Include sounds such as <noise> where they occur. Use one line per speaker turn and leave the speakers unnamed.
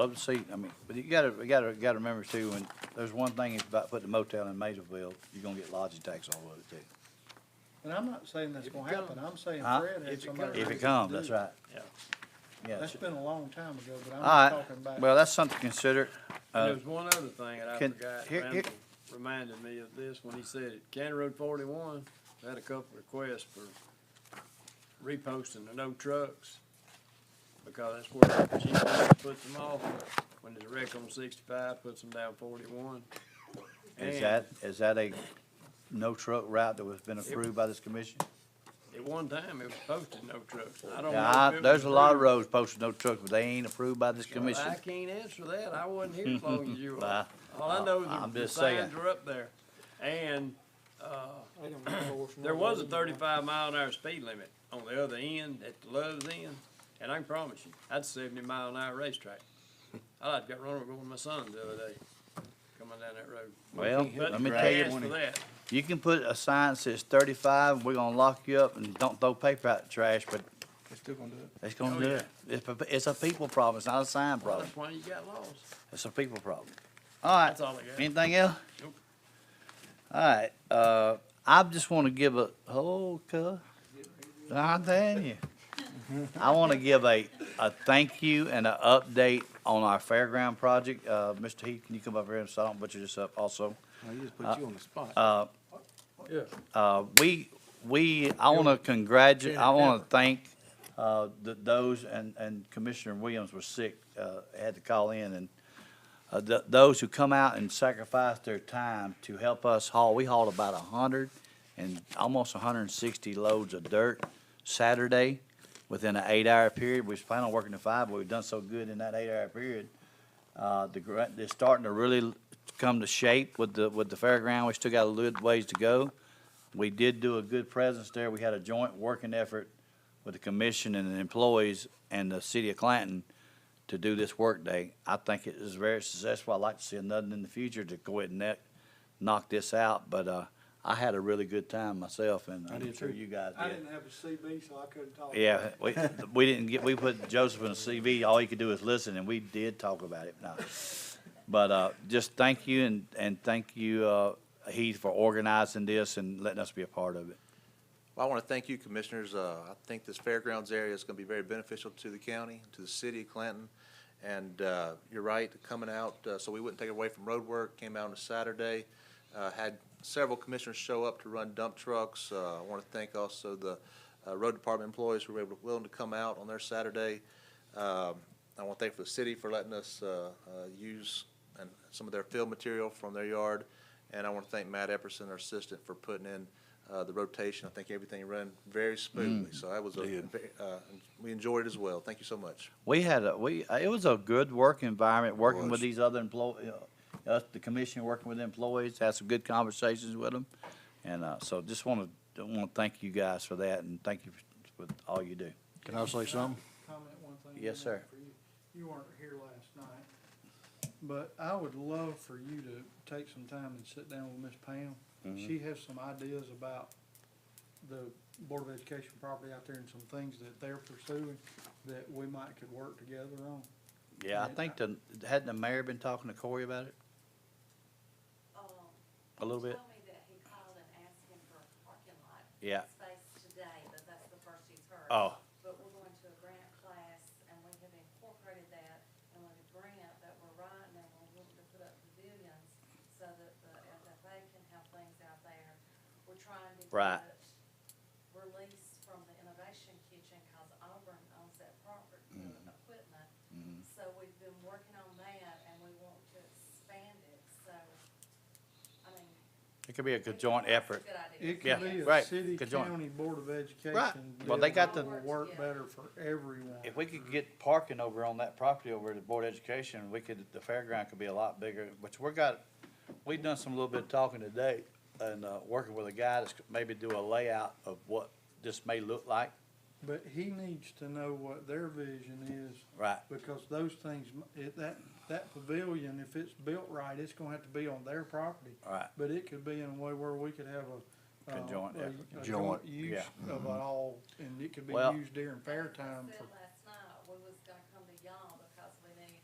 Love to see, I mean, but you gotta, you gotta, gotta remember too, when, there's one thing it's about putting a motel in Maysville, you're gonna get lodging tax all over it too.
And I'm not saying that's gonna happen, I'm saying
Huh?
Fred
If
had
it
somebody.
If
ready
it
to
comes,
do
that's
it.
right.
Yeah.
Yeah.
That's been a long time ago, but I'm
All
not
right,
talking about.
well, that's something to consider.
And
Uh,
there's one other thing that I
can-
forgot,
here- here-
Randall reminded me of this when he said it, County Road forty-one, had a couple requests for reposting the no trucks, because that's where the Chief Judge puts them off, when there's a wreck on sixty-five, puts them down forty-one.
Is
And
that, is that a no truck route that was been approved by this commission?
At one time, it was posted no trucks, I don't know.
Yeah,
if
I-
it
there's
was
a lot of
approved.
roads posted no trucks, but they ain't approved by this commission.
I can't answer that, I wasn't here as long
<laughs>
as you were.
Nah,
All I know,
I'm
the- the
just saying.
signs were up there, and, uh,
I don't know.
There was a thirty-five mile an hour speed limit on the other end, at the Love's end, and I can promise you, that's a seventy mile an hour racetrack. I like got run over with my son the other day, coming down that road.
Well,
But
let me
you
tell you,
asked for that,
You can put a sign that says thirty-five, we're gonna lock you up and don't throw paper out the trash, but
They're still gonna do it.
it's gonna
Oh,
do
yeah.
it. It's, a- it's a people problem, it's not a sign
well,
problem,
that's why you got lost.
it's a people problem. All right,
That's all I got.
anything else?
Nope.
All right, uh, I just wanna give a, oh, cuz, I'm telling you. I wanna give a, a thank you and an update on our fairground project. Uh, Mr. Heath, can you come up here and so I don't butcher this up also?
No, you just put you on the spot.
Uh,
Yeah.
uh, we, we, I want to congratulate, I want to thank, uh, th- those, and, and Commissioner Williams was sick, uh, had to call in, and, uh, th- those who come out and sacrifice their time to help us haul, we hauled about a hundred and, almost hundred and sixty loads of dirt Saturday within an eight-hour period. We was planning on working to five, but we've done so good in that eight-hour period. Uh, the, gr- they're starting to really come to shape with the, with the fairground. We still got a little ways to go. We did do a good presence there. We had a joint working effort with the commission and the employees and the city of Clanton to do this work day. I think it is very successful. I'd like to see another in the future to go ahead and net, knock this out, but, uh, I had a really good time myself and
I
I'm
did
sure
too.
you guys
I
did.
didn't have a CB, so I couldn't talk.
Yeah, we, we didn't get, we put Joseph in a CV, all he could do was listen, and we did talk about it, no. But, uh, just thank you and, and thank you, uh, Heath for organizing this and letting us be a part of it.
Well, I want to thank you, Commissioners. Uh, I think this fairgrounds area is going to be very beneficial to the county, to the city of Clanton. And uh, you're right, coming out, uh, so we wouldn't take it away from road work, came out on a Saturday, uh, had several commissioners show up to run dump trucks. Uh, I want to thank also the uh, road department employees who were able, willing to come out on their Saturday. Um, I want to thank the city for letting us uh, uh, use and some of their field material from their yard. And I want to thank Matt Epperson, our assistant, for putting in uh, the rotation. I think everything ran very smoothly, so that was, a
did.
ve- uh, we enjoyed it as well. Thank you so much.
We had a, we, it was a good work environment, working with
was.
these other employees, us, the commission, working with employees, had some good conversations with them. And, uh, so just wanna, wanna thank you guys for that and thank you for for all you do.
Can I say something?
Comment one thing.
Yes,
on that
sir.
for you. You weren't here last night, but I would love for you to take some time and sit down with Miss Pam.
Mm-hmm.
She has some ideas about the Board of Education property out there and some things that they're pursuing that we might could work together on.
Yeah, I think the, hadn't the mayor been talking to Corey about it
um,
a little
he
bit?
told me that he called and asked him for a parking lot
Yeah.
space today, but that's the first he's heard.
Oh,
But we're going to a grant class, and we have incorporated that, and with a grant that we're writing, and we're looking to put up pavilions so that the FFA can have things out there. We're trying to
Right.
get release from the Innovation Kitchen, cause Auburn owns that property, the
Mm-hmm.
equipment. So we've been working on that, and we want to expand it, so, I mean.
it could be a
we
good
think
joint
that's a
effort.
Good idea.
It
Yeah,
could be a
right,
city,
could join.
county, Board of Education.
Well,
deal
they got
that
the-
will Work
Yeah.
better for everyone.
If we could get parking over on that property over at the Board of Education, we could, the fairground could be a lot bigger, which we're got, we've done some little bit of talking today and, uh, working with a guy that's maybe do a layout of what this may look like.
But he needs to know what their vision is,
Right.
because those things, m- it, that, that pavilion, if it's built right, it's gonna have to be on their property.
Right.
But it could be in a way where we could have a. uh,
Conjoint
a-
effort.
A
Joint,
joint use
yeah.
of it all, and it could be
Mm-hmm. Well-
used during fair time
Said
for
last